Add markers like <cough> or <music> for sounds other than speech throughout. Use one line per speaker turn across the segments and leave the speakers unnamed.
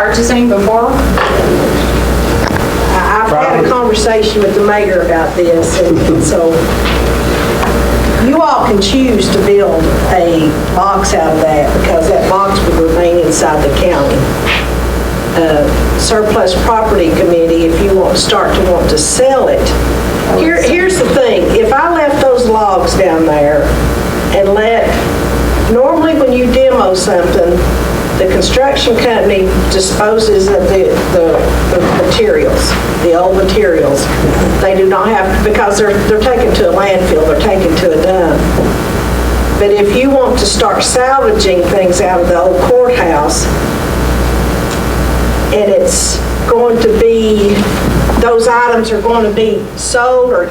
purchasing before?
I- I've had a conversation with the mayor about this, and and so you all can choose to build a box out of that, because that box would remain inside the county. Uh, Surplus Property Committee, if you want, start to want to sell it, here, here's the thing, if I left those logs down there and let, normally when you demo something, the construction company disposes of the, the the materials, the old materials. They do not have, because they're, they're taken to a landfill, they're taken to a dump. But if you want to start salvaging things out of the old courthouse, and it's going to be, those items are going to be sold, or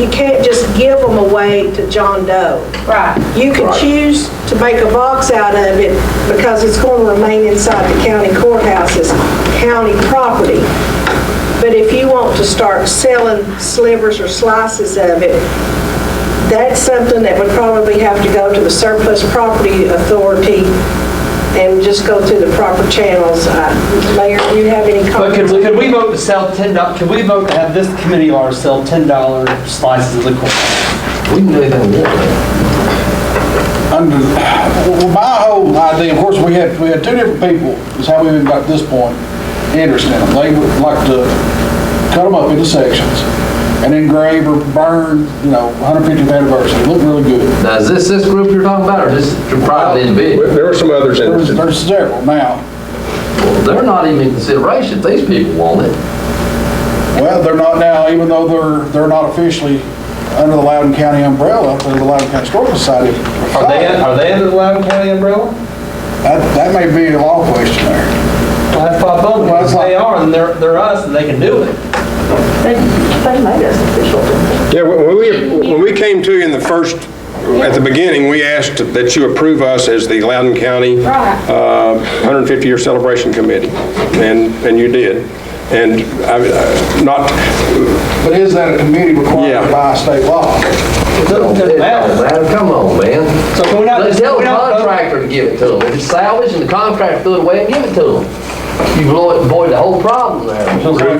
you can't just give them away to John Doe.
Right.
You can choose to make a box out of it because it's going to remain inside the county courthouse as county property. But if you want to start selling slivers or slices of it, that's something that would probably have to go to the surplus property authority and just go through the proper channels. Uh, Mayor, do you have any
But
comments?
could, we- could we vote to sell ten dollars? could we vote to have this committee or sell ten dollar slices of liquid?
We can do anything we want.
under, well, my whole idea, of course, we had, we had two different people, is how we even got to this point, interested in them. They would like to cut them up into sections and engrave or burn, you know, 150th anniversary, look really good.
Now, is this this group you're talking about, or is this your private individual?
There were some others
There's,
interested.
there's several now.
They're not even in consideration, if these people want it.
Well, they're not now, even though they're, they're not officially under the Loudoun County umbrella, under the Loudoun County Historical Society.
Are they, are they under the Loudoun County umbrella?
That, that may be a law question there.
Well, that's my vote,
Well, that's
because they
like-
are, and they're, they're us, and they can do it.
Yeah, when we, when we came to you in the first, at the beginning, we asked that you approve us as the Loudoun County uh, 150-year Celebration Committee, and, and you did. And I- I- not,
But is that a committee
Yeah.
required by state law?
Doesn't- doesn't matter.
Man, Come on, man.
So can we not,
Let's
just- can
tell
we
the
not vote?
contractor to give it to them. If it's salvage and the contractor threw it away, give it to them. You blow it- avoid the whole problem there.
Could he take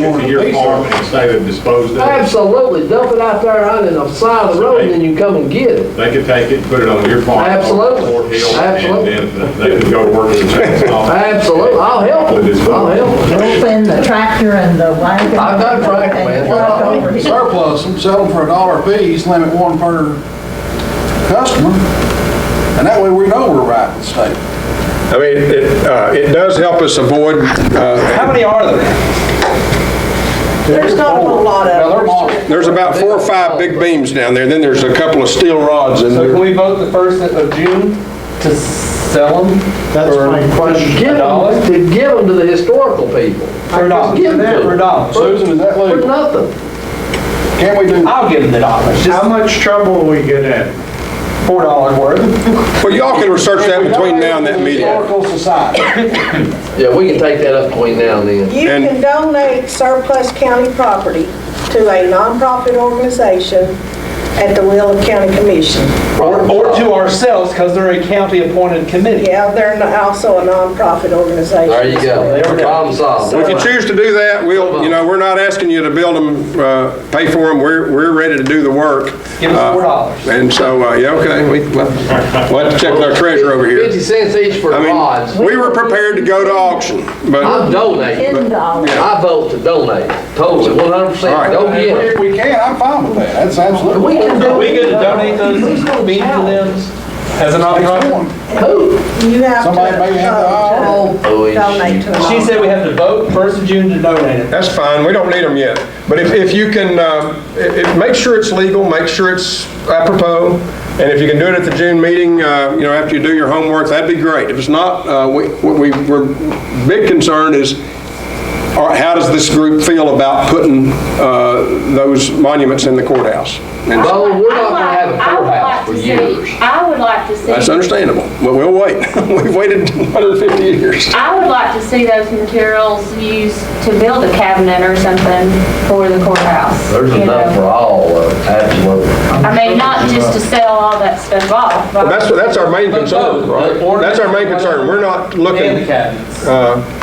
it to your farm and say they've disposed of it?
Absolutely, dump it out there on the side of the road, and then you come and get it.
They could take it, put it on your farm.
Absolutely.
Fort Hill,
Absolutely.
And then they could go to work with the
<laughs>
chainsaw.
Absolutely, I'll help them, I'll help them.
open the tractor and the wagon.
I've got a tractor, man.
Walk over here.
surplus them, sell them for a dollar a piece, limit one per customer, and that way we know we're right with the state.
I mean, it, uh, it does help us avoid, uh,
How many are there?
There's not a whole lot
Now, they're
of them.
modern.
there's about four or five big beams down there, then there's a couple of steel rods in
So
there.
can we vote the first of June to sell them? That's my
Give
A dollar?
them, to give them to the historical people.
For a dollar,
Give them to
for a
them.
dollar.
Susan, is that
For
legal?
nothing.
Can we do that?
I'll give them the dollar, just
much trouble will we get in?
four dollars worth.
Well, y'all can research that between now and that meeting.
Historical Society.
Yeah, we can take that up between now and then.
You
And-
can donate surplus county property to a nonprofit organization at the will of county commission.
Or, or to ourselves, because they're a county-appointed committee.
Yeah, they're no- also a nonprofit organization.
There you go,
There we go.
problem solved.
If you choose to do that, we'll, you know, we're not asking you to build them, uh, pay for them, we're, we're ready to do the work.
Give us four
Uh,
dollars.
And so, uh, yeah, okay, we, we'll we'll have to check with our treasurer over
Fifty
here.
cents each for
I
rods.
mean, we were prepared to go to auction,
I'm
but
donating.
Ten dollars.
I vote to donate, totally, one hundred
All
percent.
right.
Go get
If
it.
we can, I'm fine with that, that's absolutely.
We can
Are
do
we
it.
gonna donate those beans to them as an nonprofit?
Who?
You have to
Somebody may have the eye on
uh, to
Oh,
donate to a
She
nonprofit.
said we have to vote first of June to donate it.
that's fine, we don't need them yet. But if, if you can, uh, i- i- make sure it's legal, make sure it's apropos, and if you can do it at the June meeting, uh, you know, after you do your homework, that'd be great. If it's not, uh, we, what we, we're, big concern is, All right, how does this group feel about putting uh, those monuments in the courthouse? And
Bo, Oh, we're not gonna
I
have
would
a
like- I would
courthouse
like
for
to see-
years.
I would like to see.
That's understandable, but we'll wait. <laughs> We've waited 150 years.
I would like to see those materials used to build a cabinet or something for the courthouse.
There's
you
enough for
know.
all of it, absolutely.
I mean, not just to sell all that stuff off. but-
That's, that's our main concern, right? That's our main concern. We're
And
not
the
looking,
cabinets.
uh,